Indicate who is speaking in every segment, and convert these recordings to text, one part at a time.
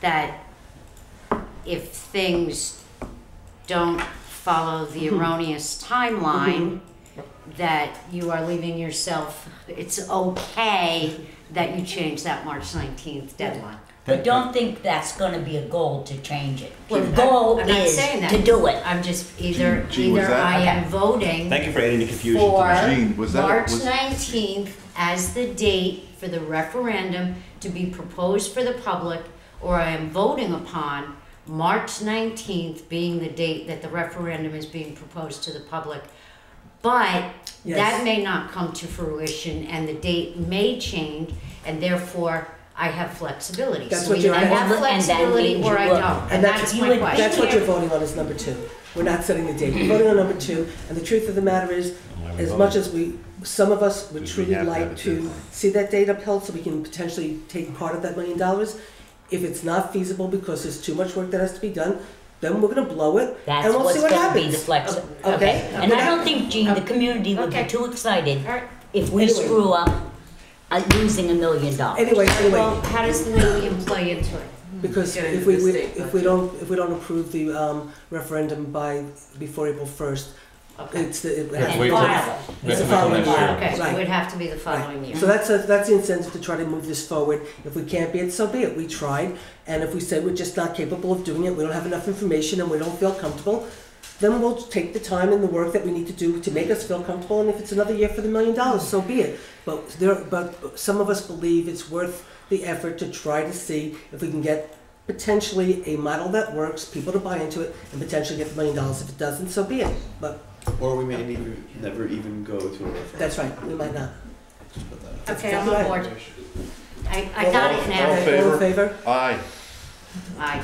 Speaker 1: that if things don't follow the erroneous timeline, that you are leaving yourself, it's okay that you change that March 19th deadline.
Speaker 2: I
Speaker 3: That-
Speaker 2: don't think that's gonna be a goal to change it. The
Speaker 1: Well, I'm-
Speaker 2: goal
Speaker 1: I'm not
Speaker 2: is
Speaker 1: saying that.
Speaker 2: to do it.
Speaker 1: I'm just, either,
Speaker 3: Gee, was
Speaker 1: either
Speaker 3: that-
Speaker 1: I am voting
Speaker 4: Thank you for adding the confusion.
Speaker 1: for
Speaker 3: Jean, was that-
Speaker 1: March
Speaker 3: was-
Speaker 1: 19th as the date for the referendum to be proposed for the public, or I am voting upon March 19th being the date that the referendum is being proposed to the public. But that
Speaker 5: Yes.
Speaker 1: may not come to fruition, and the date may change, and therefore I have flexibility.
Speaker 5: That's
Speaker 1: So
Speaker 5: what
Speaker 1: either
Speaker 5: you're
Speaker 1: I have
Speaker 2: voting- and that
Speaker 1: flexibility
Speaker 2: means
Speaker 1: or
Speaker 2: you
Speaker 1: I
Speaker 2: will.
Speaker 1: don't, and
Speaker 5: And that's-
Speaker 1: that's
Speaker 2: you
Speaker 1: my
Speaker 2: would-
Speaker 1: question.
Speaker 5: That's what you're voting on is number two. We're not setting the
Speaker 6: Mm-hmm.
Speaker 5: date. We're voting on number two. And the truth of the matter is,
Speaker 4: Why we
Speaker 5: as
Speaker 4: vote?
Speaker 5: much as we, some of us would
Speaker 4: We- we
Speaker 5: truly
Speaker 4: have to have
Speaker 5: like
Speaker 4: it
Speaker 5: to
Speaker 4: deadline.
Speaker 5: see that date upheld so we can potentially take part of that million dollars. If it's not feasible because there's too much work that has to be done, then we're gonna blow it
Speaker 2: That's
Speaker 5: and we'll
Speaker 2: what's
Speaker 5: see what
Speaker 2: gonna
Speaker 5: happens.
Speaker 2: be the flex.
Speaker 5: okay,
Speaker 2: And I
Speaker 5: okay.
Speaker 2: don't think, Gene, the community would be
Speaker 1: Okay.
Speaker 2: too excited
Speaker 1: All right.
Speaker 2: if we
Speaker 5: Anyway.
Speaker 2: screw up uh, losing a million
Speaker 6: Oh,
Speaker 2: dollars.
Speaker 5: Anyway,
Speaker 1: Well,
Speaker 5: anyway,
Speaker 1: how does the million play into it?
Speaker 5: because
Speaker 6: Get into
Speaker 5: if we,
Speaker 6: the
Speaker 5: we-
Speaker 6: state
Speaker 5: if we don't, if we don't approve the um, referendum by, before April first,
Speaker 1: Okay.
Speaker 5: it's the, it has
Speaker 3: Let's
Speaker 2: And
Speaker 3: wait till-
Speaker 2: file.
Speaker 3: Let's
Speaker 5: It's the
Speaker 3: wait till
Speaker 5: following
Speaker 3: next year.
Speaker 5: year.
Speaker 1: Okay, so it
Speaker 5: Right.
Speaker 1: would have to be the following year.
Speaker 5: So that's, a- that's the incentive to try to move this forward. If we can't be it, so be it. We tried, and if we say we're just not capable of doing it, we don't have enough information, and we don't feel comfortable, then we'll take the time and the work that we need to do to make us feel comfortable, and if it's another year for the million dollars, so be it. But there, but some of us believe it's worth the effort to try to see if we can get potentially a model that works, people to buy into it, and potentially get the million dollars. If it doesn't, so be it. But
Speaker 7: Or we may never, never even go to a referendum.
Speaker 5: that's right, we might not.
Speaker 7: Just put that out.
Speaker 1: Okay, I'm on board. I, I got it
Speaker 3: All in
Speaker 1: now.
Speaker 3: favor?
Speaker 5: All in favor?
Speaker 3: Aye.
Speaker 1: Aye.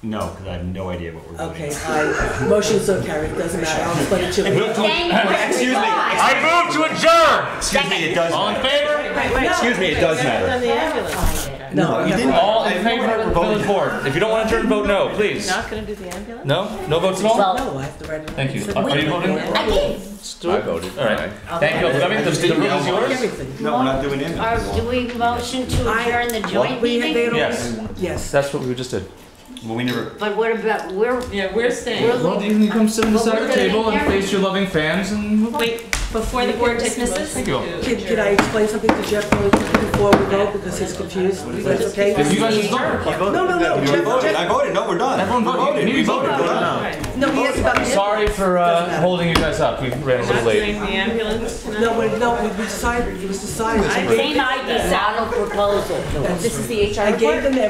Speaker 4: No, because I have no idea what we're doing.
Speaker 5: Okay, I, motion so carried, doesn't matter, I'll explain it to you.
Speaker 4: Excuse me. I move to adjourn. Excuse me. It does. All in favor? Excuse me. It does matter.
Speaker 6: the ambulance.
Speaker 5: No, you didn't.
Speaker 8: All in favor of the village board. If you don't want to turn, vote no, please.
Speaker 6: Not gonna do the ambulance?
Speaker 8: No? No votes at all?
Speaker 2: Well,
Speaker 5: No, I have to write it.
Speaker 8: Thank you. Are are you voting?
Speaker 2: I did.
Speaker 8: Stuart? All right. Thank you. I mean, the the room is yours?
Speaker 5: Everything.
Speaker 4: No, we're not doing it.
Speaker 1: Or do we motion to adjourn the joint
Speaker 5: We had, they
Speaker 1: meeting?
Speaker 5: had already-
Speaker 8: Yes.
Speaker 5: yes.
Speaker 8: That's what we just did.
Speaker 4: Well, we never.
Speaker 1: But what about, we're,
Speaker 6: Yeah, we're staying.
Speaker 1: we're,
Speaker 8: you can come sit
Speaker 1: But we're gonna be here.
Speaker 8: your loving fans and move on.
Speaker 6: Wait, before the board dismisses?
Speaker 8: Thank you.
Speaker 5: Can, can I explain something to Jeff really quick before we go, because he's confused, is that okay?
Speaker 8: If you guys just vote.
Speaker 3: No,
Speaker 5: No, no, no,
Speaker 3: We
Speaker 5: Jeff,
Speaker 3: voted,
Speaker 5: Jeff,
Speaker 3: I voted, no, we're done.
Speaker 8: Everyone voted.
Speaker 3: We
Speaker 8: You
Speaker 3: We voted,
Speaker 8: voted.
Speaker 3: we're done.
Speaker 5: no, he asked about.
Speaker 8: Sorry for
Speaker 5: Doesn't
Speaker 8: uh,
Speaker 5: matter.
Speaker 8: holding you guys up. We ran a
Speaker 6: Not
Speaker 8: little late.
Speaker 6: doing the ambulance tonight?
Speaker 5: No, we, no, we decided, it was decided.
Speaker 6: I
Speaker 2: Same idea, proposal.
Speaker 5: This is the HR I gave them